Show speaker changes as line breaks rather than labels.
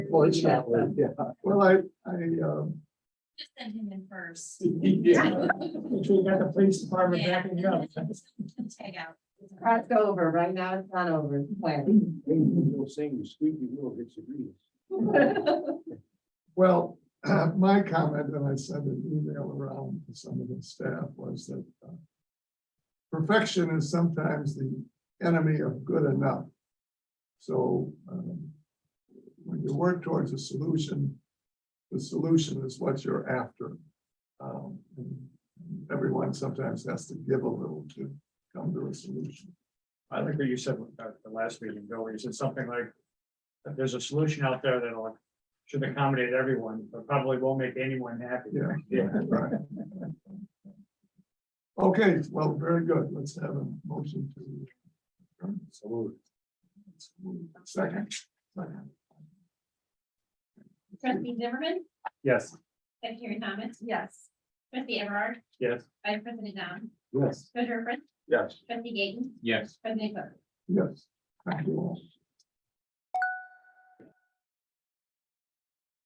Well, it's not, like- yeah, well, I, I, um.
Just send him in first.
Yeah.
We got the police department
Yeah.
backing up.
Tag out.
Cross over, right now it's not over, it's planned.
You're saying the squeaky wheel gets the grease.
Well, my comment, and I sent an email around to some of the staff, was that uh, perfection is sometimes the enemy of good enough. So um, when you work towards a solution, the solution is what you're after. Um, and Everyone sometimes has to give a little to come to a solution.
I think what you said at the last meeting, Bill, you said something like, that there's a solution out there that'll, should accommodate everyone, but probably won't make anyone happy.
Yeah.
Yeah.
Right. Okay, well, very good. Let's have a motion to. adjourn. Second. Second.
Trustee Zimmerman,
Yes,
Secretary Thomas. Yes. Trustee Everard,
yes.
Vice President Down,
Yes.
Treasurer Prince,
Yes.
Trustee Gaten,
Yes.
President Cook.
Yes. Thank you all.